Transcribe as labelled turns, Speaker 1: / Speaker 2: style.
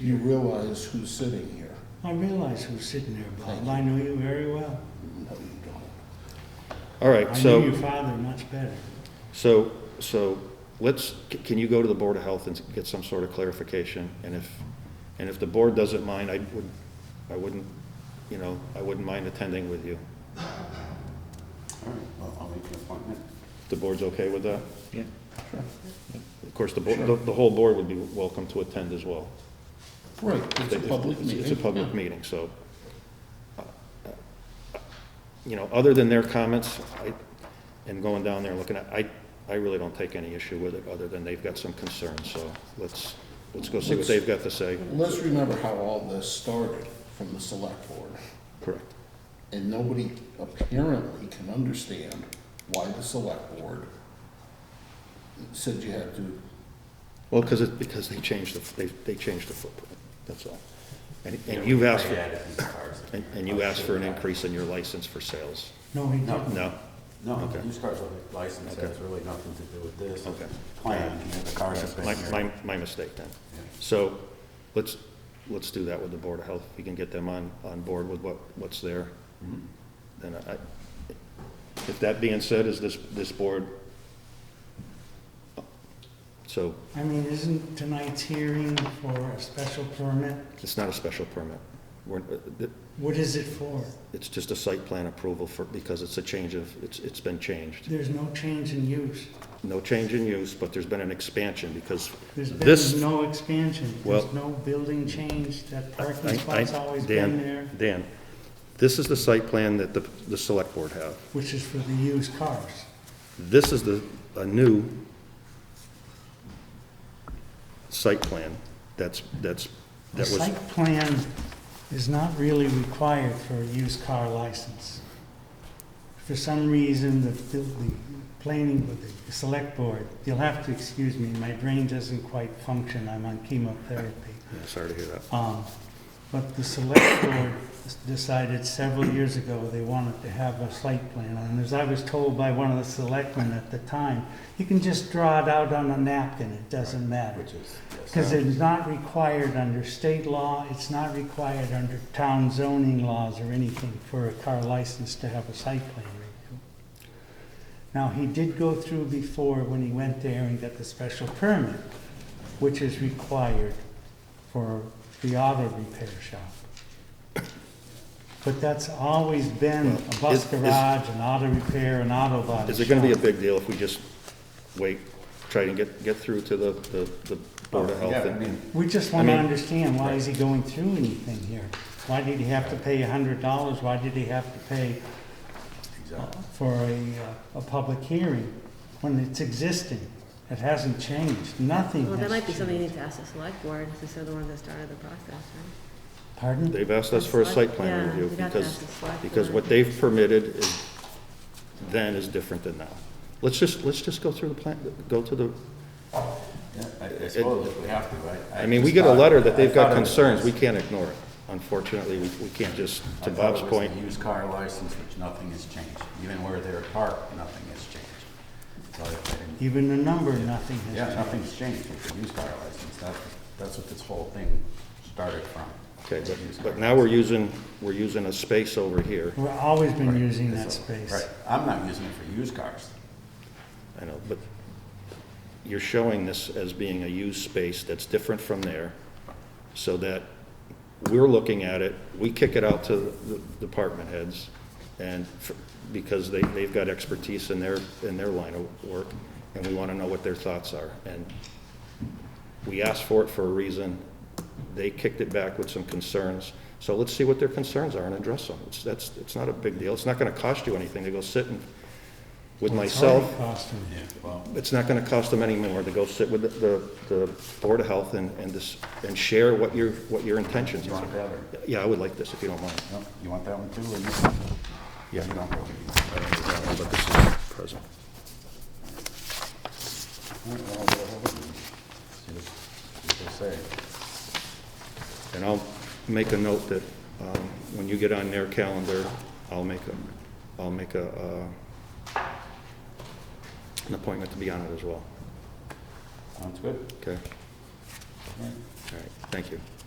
Speaker 1: You realize who's sitting here?
Speaker 2: I realize who's sitting there,
Speaker 1: Thank
Speaker 2: Bob.
Speaker 1: you.
Speaker 2: I know you very well.
Speaker 1: No, you don't.
Speaker 3: All right,
Speaker 2: I know
Speaker 3: so,
Speaker 2: your father much better.
Speaker 3: so, so let's, c- can you go to the Board of Health and get some sort of clarification? And if, and if the board doesn't mind, I would, I wouldn't, you know, I wouldn't mind attending with you.
Speaker 4: All right, well, I'll make an appointment.
Speaker 3: The board's okay with that?
Speaker 5: Yeah.
Speaker 3: Of course, the board, the, the whole board would be welcome to attend as well.
Speaker 1: Right, it's a
Speaker 3: If-
Speaker 1: public
Speaker 3: it's-
Speaker 1: meeting.
Speaker 3: It's a public meeting, so. uh, You know, other than their comments, I, and going down there and looking at, I, I really don't take any issue with it, other than they've got some concerns, so let's, let's go see what
Speaker 1: Let's-
Speaker 3: they've got to say.
Speaker 1: Let's remember how all this started from the select board.
Speaker 3: Correct.
Speaker 1: And nobody apparently can understand why the select board said you had to,
Speaker 3: Well, because it, because they changed the, they, they changed the footprint, that's all. And, and you've asked for, and, and you asked for an increase in your license for sales.
Speaker 2: No, he
Speaker 4: No.
Speaker 2: didn't.
Speaker 3: No?
Speaker 4: No, the
Speaker 3: Okay.
Speaker 4: used cars license
Speaker 3: Okay.
Speaker 4: has really nothing to do with this.
Speaker 3: Okay.
Speaker 4: Plan, you know, the cars have been
Speaker 3: My,
Speaker 4: here.
Speaker 3: my, my mistake then. So let's, let's do that with the Board of Health. We can get them on, on board with what, what's there. Then I, if that being said, is this, this board, so
Speaker 2: I mean, isn't tonight's hearing for a special permit?
Speaker 3: it's not a special permit. We're, uh,
Speaker 2: What is it for?
Speaker 3: it's just a site plan approval for, because it's a change of, it's, it's been changed.
Speaker 2: There's no change in use.
Speaker 3: No change in use, but there's been an expansion because
Speaker 2: There's
Speaker 3: This-
Speaker 2: been no expansion.
Speaker 3: Well-
Speaker 2: There's no building change. That
Speaker 3: I-
Speaker 2: parking
Speaker 3: I-
Speaker 2: spot's always
Speaker 3: Dan,
Speaker 2: been there,
Speaker 3: Dan, this is the site plan that the, the select board have.
Speaker 2: which is for the used cars.
Speaker 3: This is the, a new site plan that's, that's,
Speaker 2: The
Speaker 3: that was,
Speaker 2: site plan is not really required for a used car license. For some reason, the, the the planning, the select board, you'll have to excuse me, my brain doesn't quite function, I'm on chemotherapy.
Speaker 3: Yeah, sorry to hear that.
Speaker 2: Um, But the select board decided several years ago they wanted to have a site plan. And as I was told by one of the selectmen at the time, you can just draw it out on a napkin, it doesn't matter.
Speaker 4: Which is, yes.
Speaker 2: Because it's not required under state law, it's not required under town zoning laws or anything for a car license to have a site plan review. Now, he did go through before when he went there and got the special permit, which is required for the auto repair shop. But that's always been a
Speaker 3: Well,
Speaker 2: bus
Speaker 3: is- is-
Speaker 2: garage, an auto repair, an auto body
Speaker 3: Is it gonna be a
Speaker 2: shop.
Speaker 3: big deal if we just wait, try to get, get through to the, the, the Board of Health?
Speaker 4: Oh, Yeah, I
Speaker 3: and-
Speaker 4: mean,
Speaker 2: We just
Speaker 3: I
Speaker 2: want to
Speaker 3: mean-
Speaker 2: understand, why is he going through anything here? Why did he have to pay a hundred dollars? Why did he have to pay uh,
Speaker 4: exactly.
Speaker 2: for a, uh, a public hearing when it's existing? It hasn't changed. Nothing
Speaker 6: Well, that
Speaker 2: has
Speaker 6: might be something you
Speaker 2: changed.
Speaker 6: need to ask the select board, since they're the ones that started the process, right?
Speaker 2: Pardon?
Speaker 3: They've asked us for a site plan
Speaker 6: Yeah,
Speaker 3: review
Speaker 6: you'd have to
Speaker 3: because,
Speaker 6: ask the select
Speaker 3: because
Speaker 6: board.
Speaker 3: what they've permitted is, then is different than now. Let's just, let's just go through the plan, go to the,
Speaker 4: Yeah, I I suppose if we have to, right?
Speaker 3: I mean, we
Speaker 4: just
Speaker 3: get a
Speaker 4: thought-
Speaker 3: letter that
Speaker 4: I
Speaker 3: they've got
Speaker 4: thought it was-
Speaker 3: concerns, we can't ignore it. Unfortunately, we, we can't just,
Speaker 4: I
Speaker 3: to
Speaker 4: thought it
Speaker 3: Bob's
Speaker 4: was
Speaker 3: point,
Speaker 4: the Used car license, which nothing has changed. Even where they're parked, nothing has changed. So I didn't-
Speaker 2: Even the number, nothing has
Speaker 4: Yeah,
Speaker 2: changed.
Speaker 4: nothing's changed with the used car license. That's, that's what this whole thing started from.
Speaker 3: okay, but,
Speaker 4: Used car
Speaker 3: but now we're
Speaker 4: license.
Speaker 3: using, we're using a space over here.
Speaker 2: We've always been
Speaker 3: Right,
Speaker 2: using that
Speaker 4: So,
Speaker 2: space.
Speaker 4: Right, I'm not using it for used cars.
Speaker 3: I know, but you're showing this as being a used space that's different from there, so that we're looking at it, we kick it out to the department heads, and, for- because they, they've got expertise in their, in their line of work, and we want to know what their thoughts are. And we asked for it for a reason, they kicked it back with some concerns, so let's see what their concerns are and address them. It's, that's, it's not a big deal, it's not going to cost you anything to go sit and, with
Speaker 2: It's already
Speaker 3: myself
Speaker 2: costing.
Speaker 4: Yeah, well,
Speaker 3: it's not gonna cost them any more to go sit with the, the, the Board of Health and, and this, and share what your, what your intentions
Speaker 4: you
Speaker 3: are.
Speaker 4: want that or,
Speaker 3: Yeah, I would like this, if you don't mind.
Speaker 4: no, you want that one too? or you-
Speaker 3: Yeah.
Speaker 4: You don't really.
Speaker 3: But this is not present.
Speaker 4: All right, well, I'll go over and See what- see what they say.
Speaker 3: And I'll make a note that, um, when you get on their calendar, I'll make a, I'll make a, uh, an appointment to be on it as well,
Speaker 4: Sounds good.
Speaker 3: okay?
Speaker 4: All right.
Speaker 3: All right, thank you.